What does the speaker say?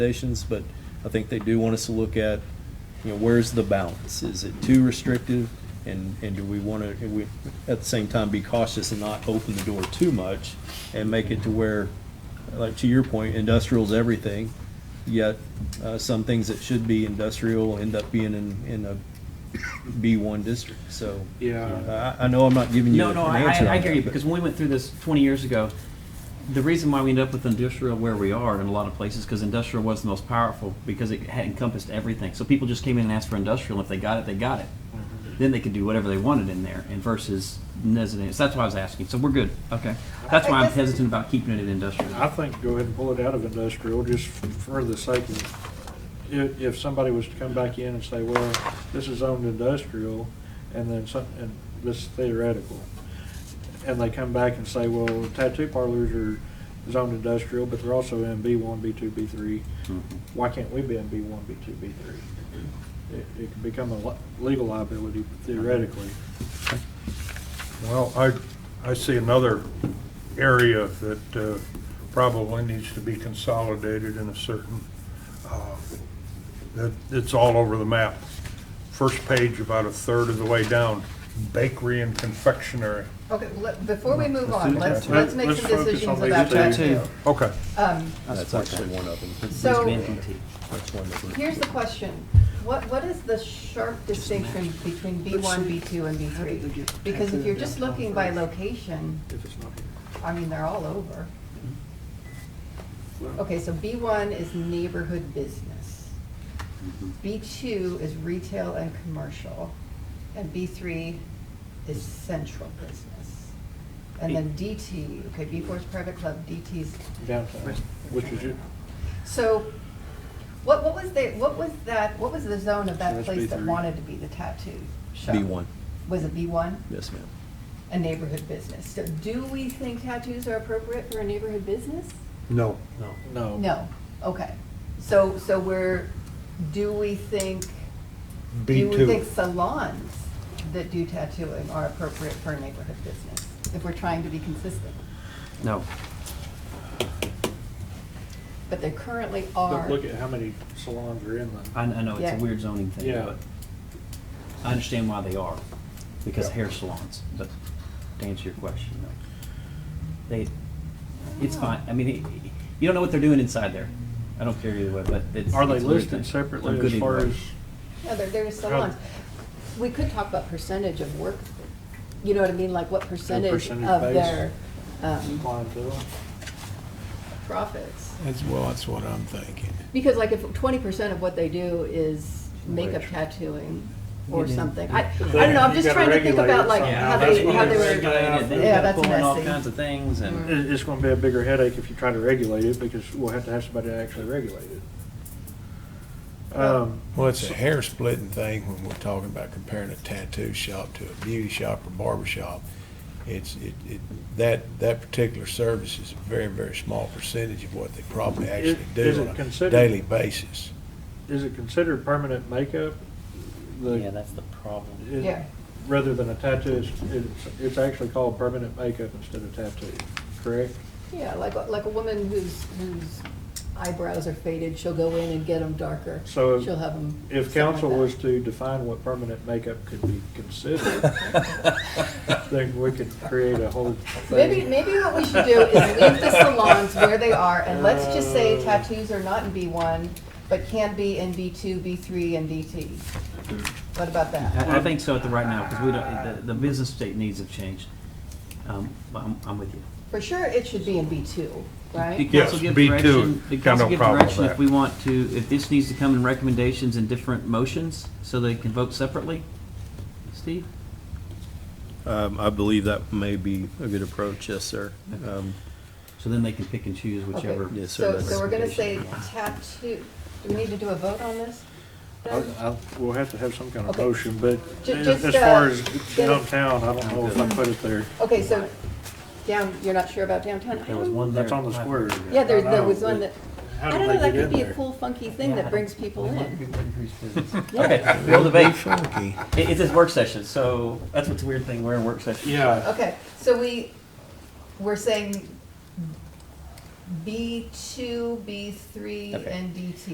recommendations, but I think they do want us to look at, you know, where's the balance? Is it too restrictive? And, and do we want to, we, at the same time, be cautious and not open the door too much and make it to where, like to your point, industrial's everything, yet, uh, some things that should be industrial end up being in, in a B one district, so. Yeah. I, I know I'm not giving you No, an no, I, answer on I I hear that, you, but- because when we went through this twenty years ago, the reason why we ended up with industrial where we are in a lot of places, because industrial was the most powerful, because it had encompassed everything. So people just came in and asked for industrial, and if they got it, they got it. Then they could do whatever they wanted in there, and versus residential, so that's why I was asking, so we're good, okay. That's why I I'm guess- hesitant about keeping it in industrial. I think go ahead and pull it out of industrial, just for the sake of, if, if somebody was to come back in and say, well, this is owned industrial, and then some, and this is theoretical. And they come back and say, well, tattoo parlors are zoned industrial, but they're also in B one, B two, B three. Mhm. Why can't we be in B one, B two, B three? It, it could become a li- legal liability theoretically. Well, I, I see another area that uh, probably needs to be consolidated in a certain, uh, that, it's all over the map. First page, about a third of the way down, bakery and confectionery. Okay, well, let- before we move Let's do on, the let's, tattoo. let's make Let's some focus on decisions these about two. that Tattoo. too. Okay, Um, That's actually one of them. So- It's VNDT. That's one of them. here's the question. What, what is the sharp distinction between B one, B two, and B three? Because if you're just looking by location, If it's not here. I mean, they're all over. Okay, so B one is neighborhood business. B two is retail and commercial, and B three is central business. And then DT, okay, B four is private club, DT's Downtown, which is it. So, what, what was the, what was that, what was the zone of that That's place that B3. wanted to be the tattoo shop? B1. Was it B one? Yes, ma'am. A neighborhood business. So do we think tattoos are appropriate for a neighborhood business? no. No. No, okay. So, so we're, do we think, do we think B2. salons that do tattooing are appropriate for a neighborhood business? If we're trying to be consistent, No, but they currently But are. look at how many salons are in I, I know, it's Yeah. a weird zoning thing, Yeah. but I understand why they are, because Yeah. hair salons, but to answer your question, no. They, it's Oh. fine, I mean, it- you don't know what they're doing inside there, I don't care either way, but it's. the, are they it's a weird listed thing. I'm separately good as far either as, way. No, there, there are salons. We could talk about percentage of work, you know what I mean, like what percentage percentage of base. their um, clientele? profits. That's, well, that's what I'm thinking. Because like if twenty percent of what they do is makeup tattooing or Yeah. something, I, I don't know, I'm You just gotta trying to think regulate about it like somehow. how That's they, what how it they is. were. Regulated, then you Yeah, gotta that's pull in all messy. kinds of things and. It- It's gonna be a bigger headache if you try to regulate it, because we'll have to have somebody to actually regulate it. Um, Well, it's a hair splitting thing when we're talking about comparing a tattoo shop to a beauty shop or barber shop. It's, it, it, that, that particular service is a very, very small percentage of what they probably actually is do it on a considered- daily basis. is it considered permanent makeup? The- Yeah, that's the problem. it- Yeah. Rather than a tattoo, it's, it's, it's actually called permanent makeup instead of tattoo, correct? Yeah, like, a- like a woman whose, whose eyebrows are faded, she'll go in and get them darker. So She'll have them. If council was to define what permanent makeup could be considered, then we could create a whole thing. Maybe, maybe what we should do is leave the salons where they are, and let's just say tattoos are not in B1, but can be in B2, B3, and DT. What about that? I, I think so at the right now, because we don't, the, the business state needs have changed, um, but I'm, I'm with you. For sure, it should be in B2, The right? Yes, council give B two, direction, the got council no give problem with direction if that. we want to, if this needs to come in recommendations in different motions, so they can vote separately? Steve? Um, I believe that may be a good approach, yes, sir. Um, So then they can pick and choose whichever. Okay, Yes, So, sir, so we're gonna say recommendation. tattoo, do we need to do a vote on this? I- I- We'll have to have some kind of Okay. motion, but Ju- as just, as far uh, as get it- downtown, I don't know if I put it there. Okay, so down, you're not sure about downtown? There was one there. That's on the square. Yeah, there, I there know, was one that, but I How don't do know, they that get could in be a there? cool funky thing that brings people in. Okay, we'll debate. Funky. It, it's this work session, so that's what's a weird thing, we're in work session. Yeah, Okay, so we, we're saying B two, B three, Okay. and DT.